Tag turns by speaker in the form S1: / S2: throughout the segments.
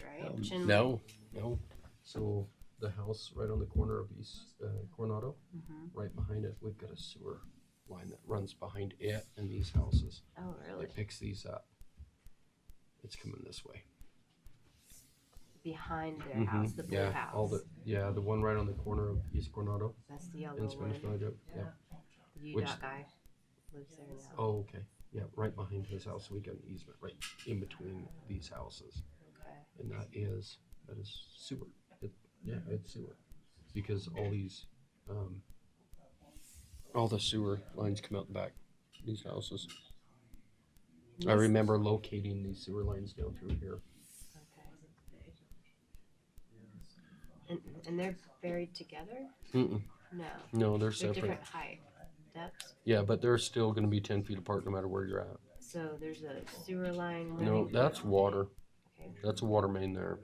S1: Um,
S2: ranch? and-
S3: Um, No, no.
S1: So the house right on the corner of East uh, Coronado,
S2: Mhm.
S1: right behind it, we've got a sewer line that runs behind it and these houses.
S2: Oh, really?
S1: It picks these up. It's coming this way.
S2: Behind their
S1: Mhm.
S2: house, the blue
S1: yeah,
S2: house.
S1: all the yeah, the one right on the corner of East Coronado
S2: That's the yellow
S1: and Spanish
S2: one.
S1: Valley Drive. Yeah.
S2: The
S1: which-
S2: UDOT guy lives there now.
S1: Oh, okay. Yeah, right behind his house. We got an easement right in between these houses,
S2: Okay.
S1: and that is that is sewer. It, yeah, it's sewer because all these um, all the sewer lines come out the back of these houses. I
S2: Yes.
S1: remember locating these sewer lines down through here.
S2: Okay. And, and they're buried together?
S1: Mm-mm.
S2: No.
S1: No, they're
S2: They're
S1: separate.
S2: different height, depths.
S1: Yeah, but they're still going to be ten feet apart no matter where you're at.
S2: So there's a sewer line running.
S1: No, that's water.
S2: Okay,
S1: That's a water main there.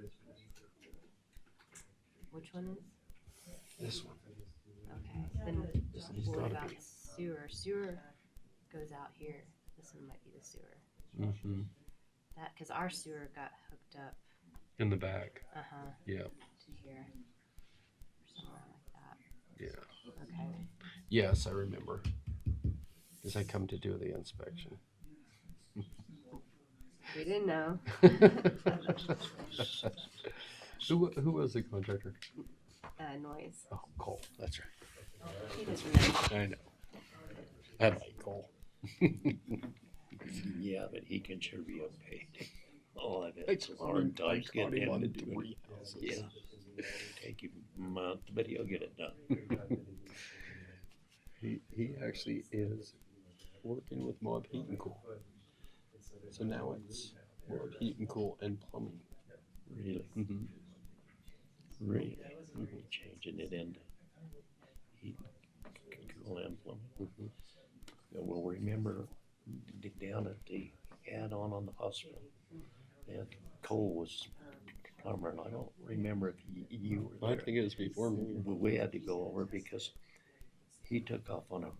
S2: Which one is?
S1: This one.
S2: Okay, then
S1: This one's
S2: what
S1: gotta
S2: about sewer? Sewer goes out here. This one might be the sewer.
S1: Mm-hmm.
S2: That, because our sewer got hooked up,
S1: In the back.
S2: uh-huh,
S1: Yeah.
S2: to here. or Somewhere like
S1: Yeah.
S2: that. Okay.
S1: Yes, I remember. Because I come to do the inspection.
S2: We didn't know.
S1: who wa- who was the contractor?
S2: Uh, noise.
S1: Oh, Cole. That's right.
S2: He doesn't know.
S1: I know. I like Cole.
S4: Yeah, but he can sure be outpaid. Oh, I bet
S1: It's
S4: it's a hard time getting him to do it.
S1: three
S4: Yeah,
S1: houses.
S4: take him a month, but he'll get it done.
S1: He, he actually is working with Mob Heat and Cool. So now it's Mob Heat and Cool and plumbing.
S4: Really,
S1: Mm-hmm.
S4: really, We're changing it into. He can call him plumbing.
S1: Mhm.
S4: Yeah, Well, remember d- down at the add-on on the hospital, that Cole was plumber, and I don't remember if y- you were there.
S1: I think it was before me.
S4: we we had to go over because he took off on a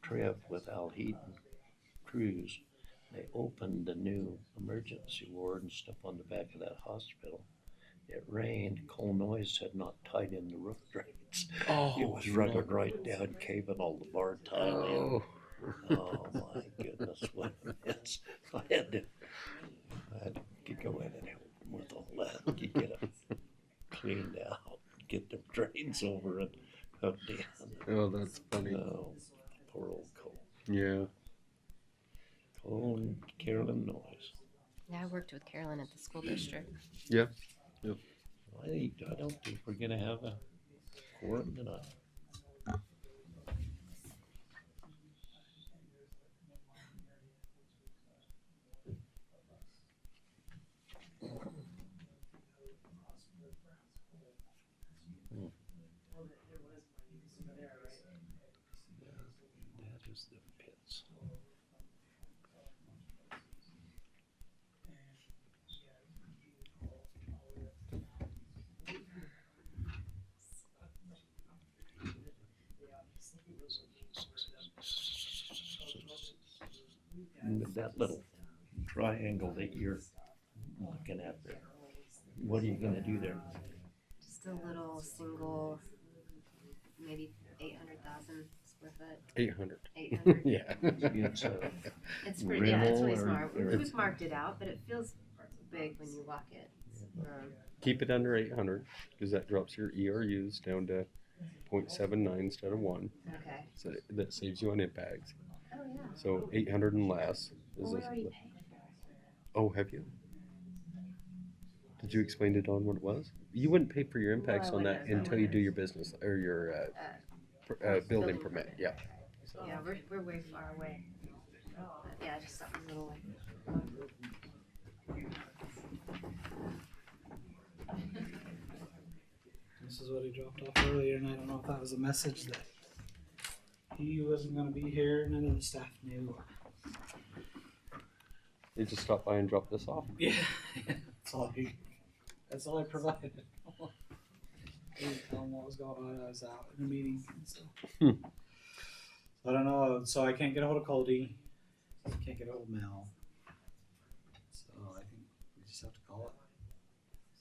S4: trip with Al Heaton Cruz. They opened the new emergency ward and stuff on the back of that hospital. It rained, Cole Noise had not tied in the roof drains.
S1: Oh,
S4: It was running right down, caving all the bar tile in.
S1: Oh,
S4: Oh, my goodness, what a mess. I had to, I had to go in and help them with all that, to get them cleaned out, get them drains over and hooked in.
S1: oh, that's funny.
S4: Oh, poor old Cole.
S1: Yeah.
S4: Cole and Carolyn Noyes.
S2: Yeah, I worked with Carolyn at the school district.
S4: I think, I don't think we're gonna have a quorum tonight. That is the pits. With that little triangle that you're looking at there, what are you gonna do there?
S2: Just a little single, maybe eight hundred thousand square foot,
S1: 800.
S2: eight hundred.
S1: Yeah.
S4: It's a-
S2: It's pretty, yeah, it's really
S4: Rimmel
S2: smart.
S4: or-
S2: We've marked it out, but it feels big when you walk it. Um,
S1: Keep it under 800 because that drops your ERUs down to 0.79 instead of 1.
S2: okay.
S1: So that saves you on impacts.
S2: Oh, yeah.
S1: So 800 and less is
S2: Well, we
S1: this.
S2: already paid for
S1: Oh, have you? Did you explain to Don what it was? You wouldn't pay for your impacts
S2: No, I
S1: on that
S2: wouldn't. I
S1: until you do
S2: wouldn't.
S1: your business or your uh,
S2: Uh,
S1: pr- uh, building
S2: building
S1: permit.
S2: permit.
S1: Yeah.
S2: it. Yeah, we're, we're way far away. But yeah, just something little like.
S5: This is what he dropped off earlier, and I don't know if that was a message that he wasn't going to be here. None of the staff knew.
S1: They just stop by and drop this off.
S5: Yeah, that's all he. That's all I provided. I didn't tell him what was going on. I was out in a meeting, so
S1: Hmm.
S5: I don't know. So I can't get a hold of Cody. Can't get a hold of Mel. So I think we just have to call it.